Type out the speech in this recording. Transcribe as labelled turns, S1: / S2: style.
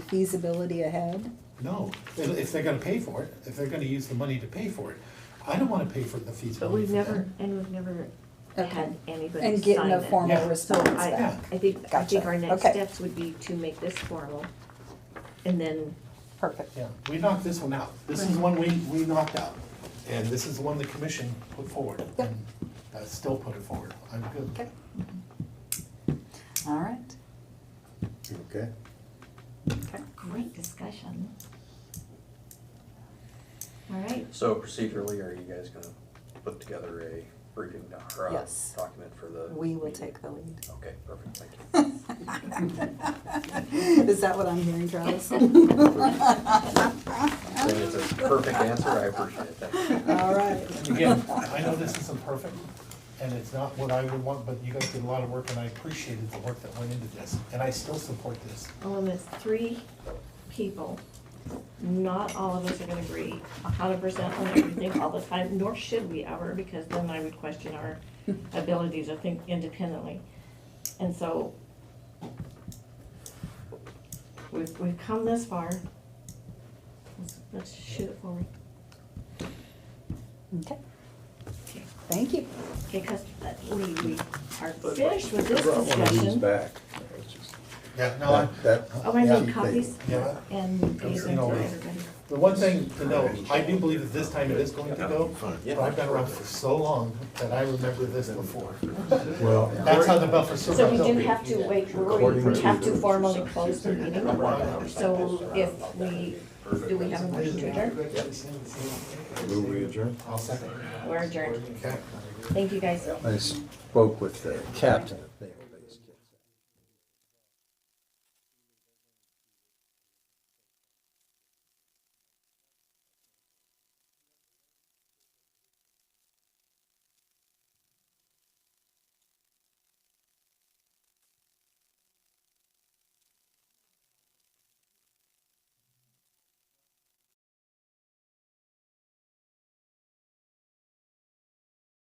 S1: feasibility ahead?
S2: No, if if they're gonna pay for it, if they're gonna use the money to pay for it, I don't wanna pay for the fees.
S3: But we've never, and we've never
S1: Okay.
S3: had anybody sign it.
S1: And get no formal
S2: Yeah.
S3: So
S1: response
S3: I,
S1: back?
S3: I think, I think
S1: Gotcha.
S3: our next
S1: Okay.
S3: steps would be to make this formal, and then,
S1: Perfect.
S2: Yeah, we knocked this one out. This is one we, we knocked out. And this is the one the commission put forward.
S1: Yep.
S2: and I still put it forward. I'm good.
S4: All right.
S5: Okay.
S3: great discussion. All right,
S6: So procedurally, are you guys gonna put together a briefing doc, or a
S4: Yes.
S6: document for the?
S4: We will
S6: meeting?
S4: take the lead.
S6: Okay, perfect, thank you.
S4: Is that what I'm hearing, Travis?
S6: I think it's a perfect answer, I appreciate it, thank you.
S4: All right.
S2: And again, I know this isn't perfect and it's not what I would want, but you guys did a lot of work and I appreciated the work that went into this. And I still support this.
S3: only with Oh, three people, not all of us are gonna agree a hundred percent on everything all the time, nor should we ever, because then I would question our ability to think independently. And so we've, we've come this far. Let's, let's shoot it forward.
S4: Okay,
S3: Okay,
S4: thank you.
S3: because uh, we, we are finished with this discussion.
S5: back. It's just-
S2: Yeah, no, I,
S5: That-
S3: Oh, I
S5: Yeah.
S3: need copies
S2: yeah.
S3: and
S2: Come
S3: these
S2: see
S3: are
S2: all
S3: for
S2: this.
S3: everybody.
S2: The one thing to note, I do believe that this time it is going to go, but I've been around for so long that I remember this before.
S5: Well,
S2: That's how the buffer
S3: So we
S2: survives.
S3: do have to wait, we
S5: According
S3: we
S5: to
S3: have to
S5: the-
S3: formally close the meeting. So if we, do we have a motion to adjourn?
S5: will we adjourn?
S2: I'll second.
S3: We're adjourned.
S2: Okay.
S3: Thank you, guys.
S5: I spoke with the captain